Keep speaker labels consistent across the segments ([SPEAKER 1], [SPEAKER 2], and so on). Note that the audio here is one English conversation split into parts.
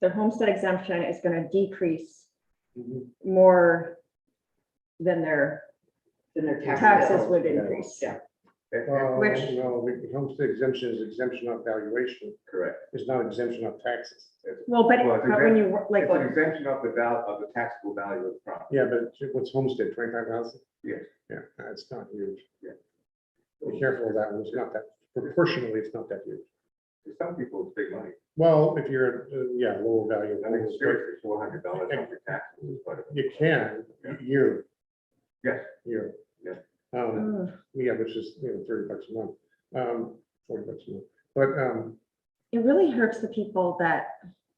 [SPEAKER 1] their homestead exemption is gonna decrease more than their
[SPEAKER 2] Then their
[SPEAKER 1] taxes
[SPEAKER 2] taxes.
[SPEAKER 1] would increase.
[SPEAKER 2] Yeah.
[SPEAKER 3] Uh,
[SPEAKER 1] Which-
[SPEAKER 3] No, the homestead exemption is exemption of valuation.
[SPEAKER 4] Correct.
[SPEAKER 3] It's not exemption of taxes.
[SPEAKER 1] Well, but,
[SPEAKER 4] Well, it's
[SPEAKER 1] but when you, wor- like,
[SPEAKER 4] It's an exemption of the val, of the taxable value of the property.
[SPEAKER 3] Yeah, but what's homestead, twenty-five thousand?
[SPEAKER 4] Yes.
[SPEAKER 3] Yeah, it's not huge.
[SPEAKER 4] Yeah.
[SPEAKER 3] Be careful of that one. It's not that, proportionally, it's not that huge.
[SPEAKER 4] To some people, it's big money.
[SPEAKER 3] Well, if you're, uh, yeah, lower value.
[SPEAKER 4] I think seriously, four hundred dollars on your taxes is quite a.
[SPEAKER 3] You can, year.
[SPEAKER 4] Yes.
[SPEAKER 3] Year.
[SPEAKER 4] Yes.
[SPEAKER 3] Um,
[SPEAKER 1] mm,
[SPEAKER 3] yeah, which is, you know, thirty bucks a month, um, forty bucks a month. But, um,
[SPEAKER 1] it really hurts the people that,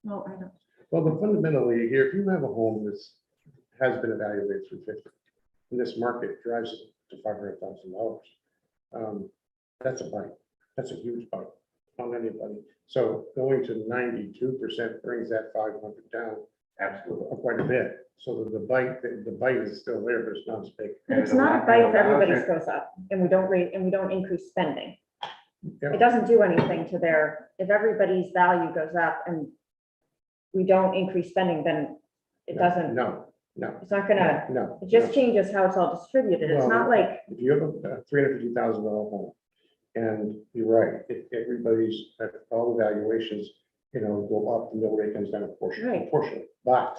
[SPEAKER 1] well, I don't,
[SPEAKER 3] well, but fundamentally, here, if you have a home that's, has been evaluated through fifty, in this market drives it to five hundred thousand dollars. Um, that's a bite. That's a huge bite on anybody. So going to ninety-two percent brings that five hundred down
[SPEAKER 4] Absolutely.
[SPEAKER 3] quite a bit. So that the bite, the the bite is still there, but it's not as big.
[SPEAKER 4] And
[SPEAKER 1] it's
[SPEAKER 4] it
[SPEAKER 1] not
[SPEAKER 4] allows-
[SPEAKER 1] a bite
[SPEAKER 4] it
[SPEAKER 1] if
[SPEAKER 4] allows
[SPEAKER 1] everybody's
[SPEAKER 4] you-
[SPEAKER 1] goes up and we don't rate, and we don't increase spending.
[SPEAKER 3] Yeah.
[SPEAKER 1] It doesn't do anything to their, if everybody's value goes up and we don't increase spending, then it doesn't,
[SPEAKER 3] No, no,
[SPEAKER 1] it's not gonna,
[SPEAKER 3] no.
[SPEAKER 1] it
[SPEAKER 3] no.
[SPEAKER 1] just changes how it's all distributed. It's not
[SPEAKER 3] Well,
[SPEAKER 1] like,
[SPEAKER 3] If you have a three hundred fifty thousand dollar home, and you're right, if everybody's, if all the valuations, you know, go up, the mill rate comes down a portion,
[SPEAKER 1] Right.
[SPEAKER 3] portion. But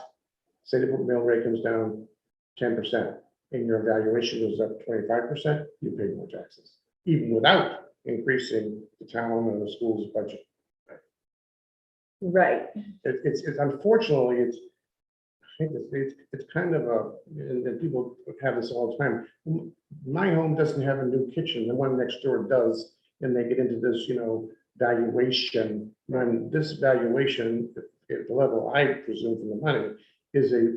[SPEAKER 3] say the mill rate comes down ten percent, and your valuation goes up twenty-five percent, you pay more taxes, even without increasing the town and the school's budget.
[SPEAKER 1] right,
[SPEAKER 3] It, it's, it's unfortunately, it's, I think it's, it's, it's kind of a, and, and people have this all the time. M- My home doesn't have a new kitchen, the one next door does, and they get into this, you know, valuation. When this valuation, at the level I presume from the money, is a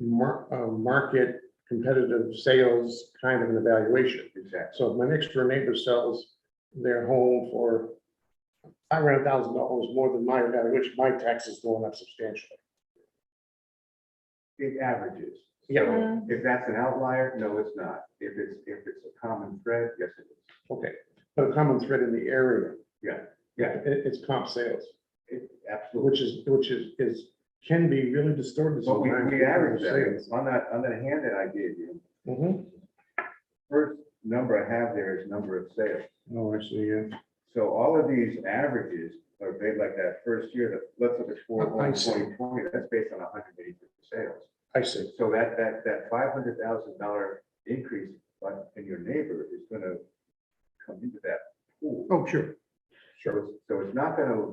[SPEAKER 3] mar- a market competitive sales kind of an evaluation.
[SPEAKER 4] Exactly.
[SPEAKER 3] So if my next door neighbor sells their home for five hundred thousand dollars more than my value, which my tax is going up substantially.
[SPEAKER 4] It averages.
[SPEAKER 3] Yeah.
[SPEAKER 4] So If that's an outlier, no, it's not. If it's, if it's a common thread, yes, it is.
[SPEAKER 3] Okay, but a common thread in the area.
[SPEAKER 4] Yeah, yeah.
[SPEAKER 3] It, it's comp sales,
[SPEAKER 4] It- Absolutely.
[SPEAKER 3] which is, which is, is, can be really distorted.
[SPEAKER 4] But we,
[SPEAKER 3] sometimes
[SPEAKER 4] we
[SPEAKER 3] with
[SPEAKER 4] average
[SPEAKER 3] sales.
[SPEAKER 4] that. On that, on that hand that I gave you,
[SPEAKER 3] Mhm.
[SPEAKER 4] first number I have there is number of sales.
[SPEAKER 3] Oh, I see, yeah.
[SPEAKER 4] So all of these averages are made like that first year, that, let's look at four,
[SPEAKER 3] Oh, I
[SPEAKER 4] one,
[SPEAKER 3] see.
[SPEAKER 4] twenty, twenty, that's based on hundred eighty sales.
[SPEAKER 3] I see.
[SPEAKER 4] So that, that, that five hundred thousand dollar increase on, in your neighbor is gonna come into that pool.
[SPEAKER 3] Oh, sure.
[SPEAKER 4] So, it's- so it's not gonna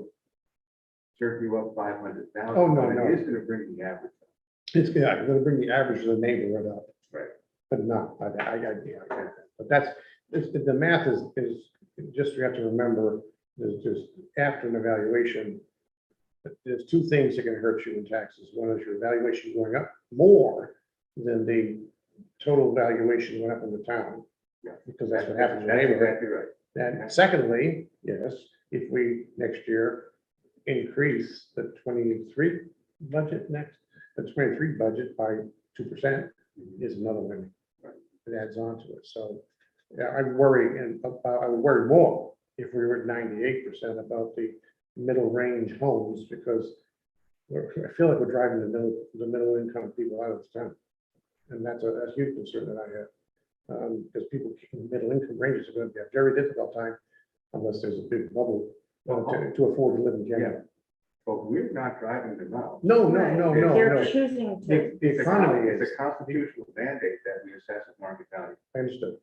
[SPEAKER 4] jerk you up five hundred thousand.
[SPEAKER 3] Oh, no, no.
[SPEAKER 4] It is gonna bring the average. up.
[SPEAKER 3] It's, yeah, I'm gonna bring the average of the neighborhood up.
[SPEAKER 4] Right.
[SPEAKER 3] But not, I, I, I, yeah, I get that. but that's, it's- the math is, is, just you have to remember, there's just, after an evaluation, there's two things that can hurt you in taxes. One is your valuation going up more than the total valuation went up in the town.
[SPEAKER 4] Yeah.
[SPEAKER 3] Because that's what happens in the
[SPEAKER 4] That's
[SPEAKER 3] neighborhood.
[SPEAKER 4] exactly right.
[SPEAKER 3] And secondly, yes, if we next year increase the twenty-three budget next, the twenty-three budget by two percent is another one. It adds on to it. So yeah, I worry and about- I would worry more if we were at ninety-eight percent about the middle range homes because we're, I feel like we're driving the middle, the middle income people out of town. And that's a, that's a huge concern that I have. Um, because people in the middle income ranges are gonna be a very difficult time unless there's a big bubble uh, to, to afford to live in Canada.
[SPEAKER 4] But we're not driving them out.
[SPEAKER 3] No, no, no, no,
[SPEAKER 1] they're
[SPEAKER 3] no.
[SPEAKER 1] choosing to,
[SPEAKER 3] The the
[SPEAKER 4] It's a con-
[SPEAKER 3] economy is,
[SPEAKER 4] It's a constitutional mandate that we assess at market value.
[SPEAKER 3] I understood.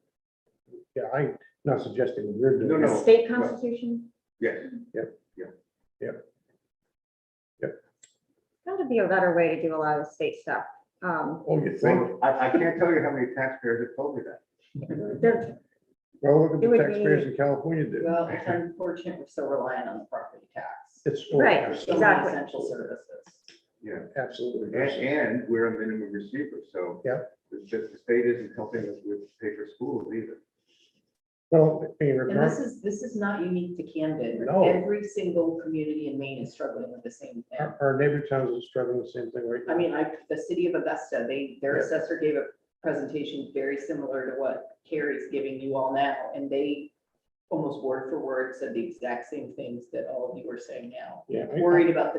[SPEAKER 3] Yeah, I'm not suggesting that you're doing.
[SPEAKER 4] No,
[SPEAKER 3] it.
[SPEAKER 1] the
[SPEAKER 4] no.
[SPEAKER 1] state constitution,
[SPEAKER 4] Yes.
[SPEAKER 1] gotta be a better way to do a lot of state stuff. Um,
[SPEAKER 3] Oh, you think?
[SPEAKER 4] Well, I, I can't tell you how many taxpayers have told me that.
[SPEAKER 1] they're,
[SPEAKER 3] Well, look at
[SPEAKER 1] It
[SPEAKER 3] the
[SPEAKER 1] would
[SPEAKER 3] taxpayers
[SPEAKER 1] be-
[SPEAKER 3] in California do.
[SPEAKER 2] Well, it's unfortunate we're still relying on the property tax.
[SPEAKER 3] It's. oh,
[SPEAKER 1] Right,
[SPEAKER 2] So
[SPEAKER 3] absolutely,
[SPEAKER 2] many
[SPEAKER 1] exactly.
[SPEAKER 2] Essential services.
[SPEAKER 4] Yeah.
[SPEAKER 3] Absolutely.
[SPEAKER 4] And, and we're a minimum receiver, so.
[SPEAKER 3] Yeah.
[SPEAKER 4] It's just the state isn't helping us with pay for schools either.
[SPEAKER 3] Well, in
[SPEAKER 2] And this
[SPEAKER 3] regard,
[SPEAKER 2] is, this is not unique to Camden.
[SPEAKER 3] No.
[SPEAKER 2] Every single community in Maine is struggling with the same thing.
[SPEAKER 3] our, our neighbor towns are struggling with the same thing right now.
[SPEAKER 2] I mean, I, the city of Augusta, they, their
[SPEAKER 3] Yeah.
[SPEAKER 2] assessor gave a presentation very similar to what Carrie's giving you all now, and they almost word for word said the exact same things that all of you are saying now.
[SPEAKER 3] Yeah. I-
[SPEAKER 2] Worried about the